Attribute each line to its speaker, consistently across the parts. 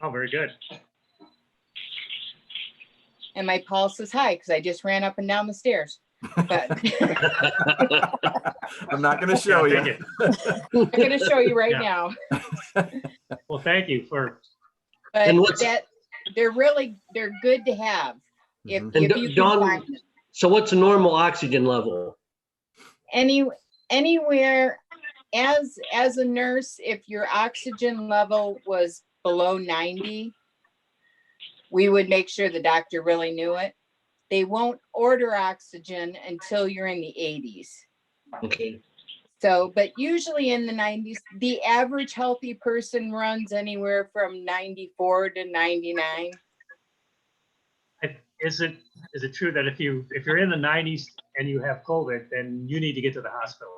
Speaker 1: Oh, very good.
Speaker 2: and my pulse is high because I just ran up and down the stairs. But I'm
Speaker 3: I'm not going to show
Speaker 1: Yeah,
Speaker 3: you.
Speaker 1: thank
Speaker 2: gonna show you right
Speaker 1: Yeah.
Speaker 2: now.
Speaker 1: you. Well, thank you for,
Speaker 2: But
Speaker 4: And what's-
Speaker 2: that, they're really, they're good to have. If,
Speaker 3: Mhm.
Speaker 4: Mm-hmm. And
Speaker 2: if
Speaker 4: Do-
Speaker 2: you can
Speaker 4: Dawn-
Speaker 2: find them.
Speaker 4: So what's a normal oxygen level?
Speaker 2: Any, anywhere, as, as a nurse, if your oxygen level was below ninety, we would make sure the doctor really knew it. They won't order oxygen until you're in the eighties.
Speaker 4: Okay,
Speaker 2: So, but usually in the nineties, the average healthy person runs anywhere from ninety-four to ninety-nine.
Speaker 1: is it, is it true that if you, if you're in the nineties and you have COVID, then you need to get to the hospital?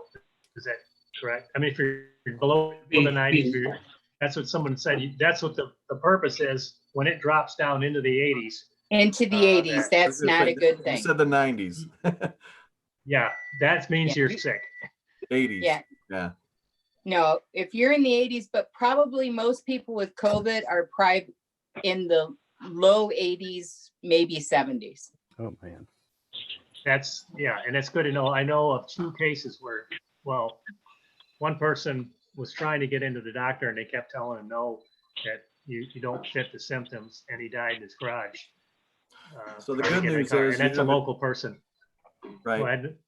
Speaker 1: Is that correct? I mean, if you're below the nineties, you're- that's what someone said, you- that's what the, the purpose is, when it drops down into the eighties.
Speaker 2: Into the
Speaker 1: Uh,
Speaker 2: eighties, that's
Speaker 3: You
Speaker 2: not a
Speaker 3: said-
Speaker 2: good thing.
Speaker 3: You said the 90s,
Speaker 1: Yeah, that means you're sick.
Speaker 3: 80s.
Speaker 2: Yeah. No, if you're in the eighties, but probably most people with COVID are probably in the low eighties, maybe seventies.
Speaker 5: Oh, man.
Speaker 1: That's, yeah, and that's good to know. I know of two cases where, well, one person was trying to get into the doctor and they kept telling him, no, that you, you don't fit the symptoms, and he died in his garage. uh,
Speaker 3: So the
Speaker 1: trying to
Speaker 3: good
Speaker 1: get in
Speaker 3: news
Speaker 1: car,
Speaker 3: is
Speaker 1: And
Speaker 3: you
Speaker 1: that's a
Speaker 3: haven't-
Speaker 1: local person. Go
Speaker 3: Right.
Speaker 1: ahead.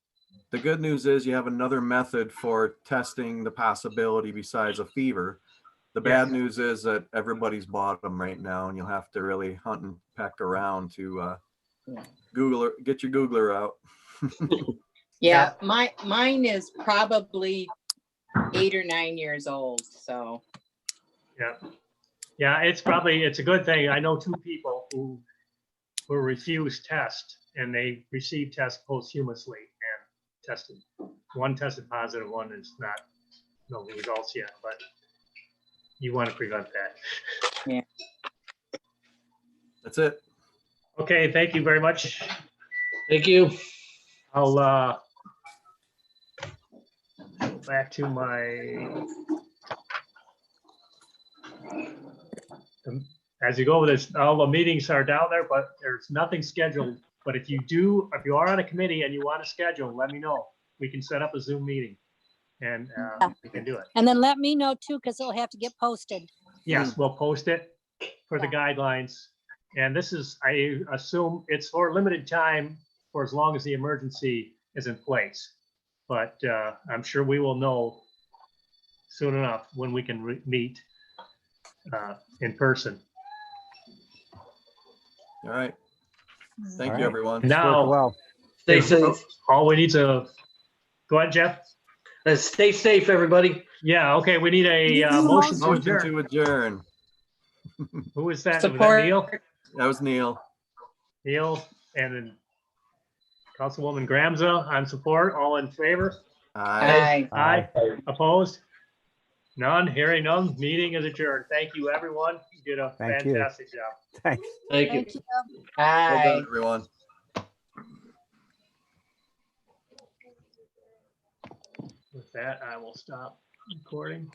Speaker 3: The good news is you have another method for testing the possibility besides a fever. The bad
Speaker 1: Yes.
Speaker 3: news is that everybody's bought them right now and you'll have to really hunt and peck around to uh, Googler, get your Googler out.
Speaker 2: Yeah, my, mine is probably eight or nine years old, so.
Speaker 1: Yeah, it's probably, it's a good thing. I know two people who were refused test and they received tests posthumously and tested. One tested positive, one is not, no results yet, but you want to prevent that.
Speaker 3: That's it.
Speaker 1: Okay, thank you very much.
Speaker 4: thank you.
Speaker 1: I'll, uh, back to my. um, As you go with this, all the meetings are down there, but there's nothing scheduled. But if you do, if you are on a committee and you want to schedule, let me know. We can set up a Zoom meeting and, uh, we can do it.
Speaker 6: And then let me know too, because it'll have to get posted.
Speaker 1: Yes, Mm. we'll post it for the guidelines. And this is, I assume it's for limited time for as long as the emergency is in place. But uh, I'm sure we will know soon enough when we can re- meet uh, in person.
Speaker 3: All right. Thank
Speaker 2: Mm-hmm.
Speaker 5: All
Speaker 3: you,
Speaker 5: right.
Speaker 3: everyone.
Speaker 5: It's working
Speaker 1: Now-
Speaker 5: Well,
Speaker 4: Stay safe.
Speaker 1: All we need to, go ahead, Jeff.
Speaker 4: Uh, Stay safe, everybody.
Speaker 1: Yeah, okay, we need a uh, motion to
Speaker 3: Motion
Speaker 1: adjourn.
Speaker 3: to adjourn.
Speaker 1: Who is that? Was that
Speaker 2: Support.
Speaker 1: Neil?
Speaker 3: That was Neil.
Speaker 1: Neil and then Councilwoman Gramza on support, all in favor?
Speaker 3: Aye.
Speaker 2: I
Speaker 1: Aye. Opposed? None, hearing none, meeting is adjourned. Thank you, everyone. You did a
Speaker 5: Thank you.
Speaker 1: fantastic job.
Speaker 5: thanks.
Speaker 4: Thank you.
Speaker 3: Well
Speaker 2: I.
Speaker 3: done, everyone.
Speaker 1: With that, I will stop recording.